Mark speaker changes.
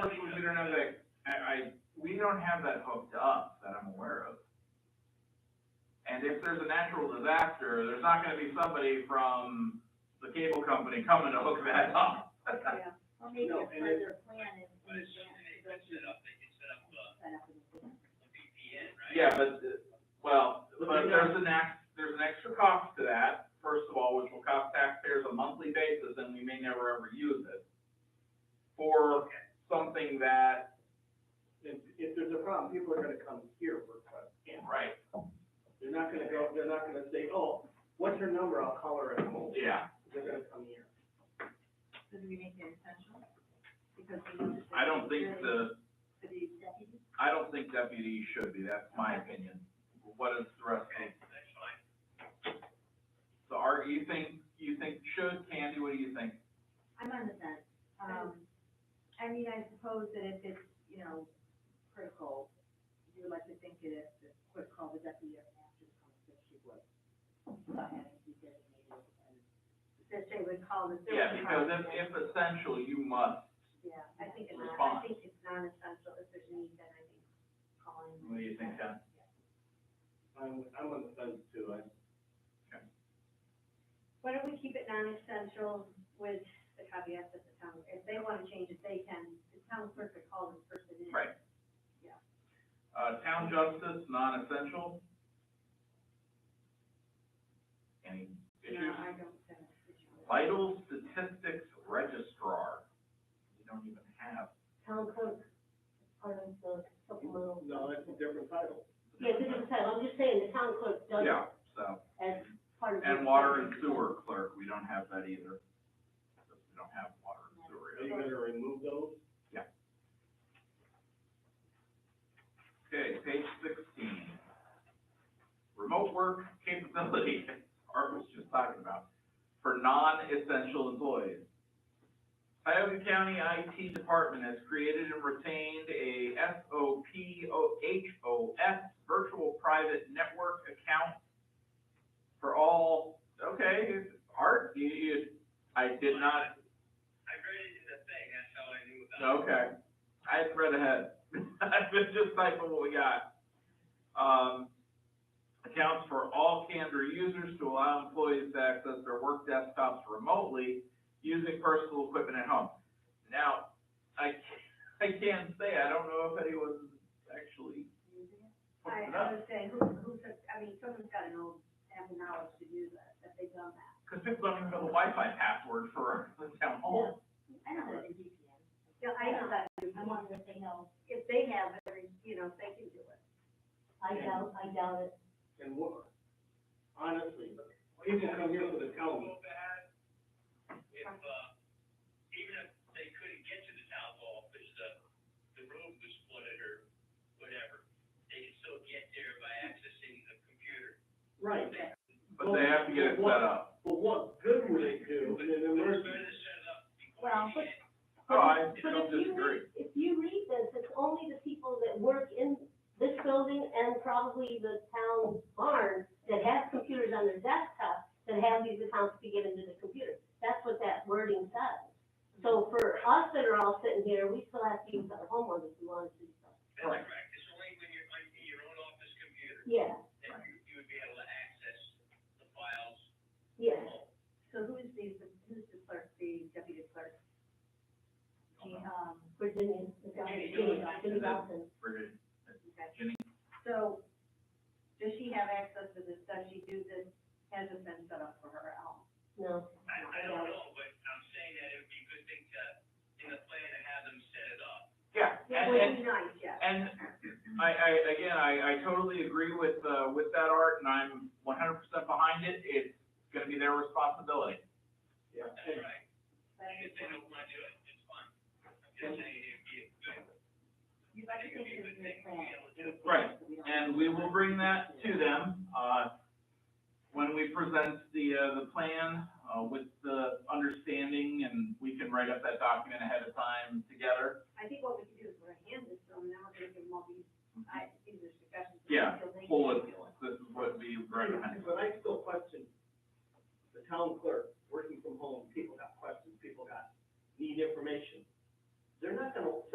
Speaker 1: don't know that, I, I, we don't have that hooked up that I'm aware of. And if there's a natural disaster, there's not gonna be somebody from the cable company coming to hook that up.
Speaker 2: Yeah, well, maybe
Speaker 3: No,
Speaker 2: a
Speaker 3: and it-
Speaker 2: further plan is, is
Speaker 3: set up, they can set up a
Speaker 2: set up in the plan.
Speaker 3: VPN, right?
Speaker 1: Yeah, but, uh, well,
Speaker 3: But
Speaker 1: but
Speaker 3: they
Speaker 1: there's an act, there's an extra cost to that, first of all, which will cost taxpayers a monthly basis, and we may never ever use it. For something that,
Speaker 3: If, if there's a problem, people are gonna come here for a camp.
Speaker 1: right,
Speaker 3: They're not gonna go, they're not gonna say, oh, what's her number, I'll call her at home.
Speaker 1: yeah,
Speaker 3: They're gonna come here.
Speaker 2: So do we make it essential? Because we.
Speaker 1: I don't think the,
Speaker 2: For the deputy?
Speaker 1: I don't think deputies should be, that's my opinion. What is the rest of? So are, you think, you think should, Candy, what do you think?
Speaker 2: I'm on the fence. Um, I mean, I suppose that if it's, you know, critical, you would like to think that if the quick call the deputy or after the conversation, she would. Without having to be designated and that they would call the.
Speaker 1: Yeah, because if,
Speaker 2: service
Speaker 1: if essential, you must,
Speaker 2: Yeah, I think it's,
Speaker 1: Response.
Speaker 2: I think it's non-essential, if there's need, then I think calling.
Speaker 1: what do you think, Ken?
Speaker 3: I'm, I'm on the fence too, I,
Speaker 4: Why don't we keep it non-essential with the caveat that the town, if they wanna change it, they can, the town clerk could call this person in.
Speaker 1: Right. Uh, town justice, non-essential? Any
Speaker 4: No,
Speaker 1: issues?
Speaker 4: I don't, think it's essential.
Speaker 1: Vital statistics registrar, we don't even have.
Speaker 4: town clerk, pardon, the supplemental.
Speaker 3: no, that's a different title.
Speaker 4: Yeah, this is, I'm just saying, the town clerk does
Speaker 1: Yeah, so,
Speaker 4: as part of.
Speaker 1: and water and sewer clerk, we don't have that either. We don't have water and sewer.
Speaker 3: Are you gonna remove those?
Speaker 1: Okay, page sixteen. Remote work capability, Art was just talking about, for non-essential employees. Tioga County IT Department has created and retained a SOPOHOS virtual private network account for all, okay, Art, you, you, I did not
Speaker 3: I read it in the thing, that's how I knew
Speaker 1: Okay, I had read ahead. I've been just typing what we got. Um, accounts for all Candor users to allow employees to access their work desktops remotely using personal equipment at home. Now, I, ca- I can say, I don't know if anyone's actually
Speaker 4: I,
Speaker 1: putting it
Speaker 4: I
Speaker 1: up,
Speaker 4: was saying, who, who took, I mean, someone's gotta know, have the knowledge to do that, that they've done that.
Speaker 1: because people don't even know the Wi-Fi password for the town hall.
Speaker 2: I know that in DPN.
Speaker 4: Yeah, I know that,
Speaker 2: I wonder if they know,
Speaker 4: if they have, every- you know, if they can do it.
Speaker 2: I doubt, I doubt it.
Speaker 3: And what, honestly, people come here for the county.
Speaker 5: if, uh, even if they couldn't get to the town hall, if there's the, the room was flooded or whatever, they can still get there by accessing the computer.
Speaker 3: Right,
Speaker 1: But they have to get it set up.
Speaker 3: but what good would it do in an
Speaker 5: They're
Speaker 3: emergency?
Speaker 5: gonna set it up before
Speaker 6: Well,
Speaker 5: you
Speaker 6: but-
Speaker 5: get-
Speaker 1: Oh, I
Speaker 6: But
Speaker 1: don't
Speaker 6: if you
Speaker 1: disagree.
Speaker 6: read- If you read this, it's only the people that work in this building and probably the town barn that have computers on their desktop that have these accounts to be given to the computer. That's what that wording says. So for us that are all sitting here, we still have to use our home ones if we wanted to.
Speaker 5: That's correct, it's only when you're on in your own office computer
Speaker 6: Yeah,
Speaker 5: that you, you would be able to access the files.
Speaker 6: yeah.
Speaker 2: So who is the, who's the clerk, the deputy clerk? She, um,
Speaker 6: Virginia, the
Speaker 2: Virginia,
Speaker 6: Virginia,
Speaker 1: Virginia.
Speaker 6: Virginia Dawson.
Speaker 1: We're
Speaker 4: uh,
Speaker 2: okay.
Speaker 1: Jenny.
Speaker 2: So, does she have access to this, does she do this, hasn't been set up for her at home?
Speaker 6: No,
Speaker 5: I, I don't know, but I'm saying that it would be a good thing to, in the plan to have them set it up.
Speaker 1: Yeah,
Speaker 4: That
Speaker 1: and, and
Speaker 4: would be nice, yeah.
Speaker 1: And I, I, again, I, I totally agree with, uh, with that art and I'm one hundred percent behind it. It's gonna be their responsibility.
Speaker 3: Yeah,
Speaker 5: That's
Speaker 3: and-
Speaker 5: right, and if they don't wanna do it, it's fine. I'm just saying it'd be a good,
Speaker 2: You'd like to think this is a plan.
Speaker 1: Right,
Speaker 2: so we don't-
Speaker 1: And we will bring that to them, uh, when we present the, uh, the plan, uh, with the understanding and we can write up that document ahead of time together.
Speaker 4: uh,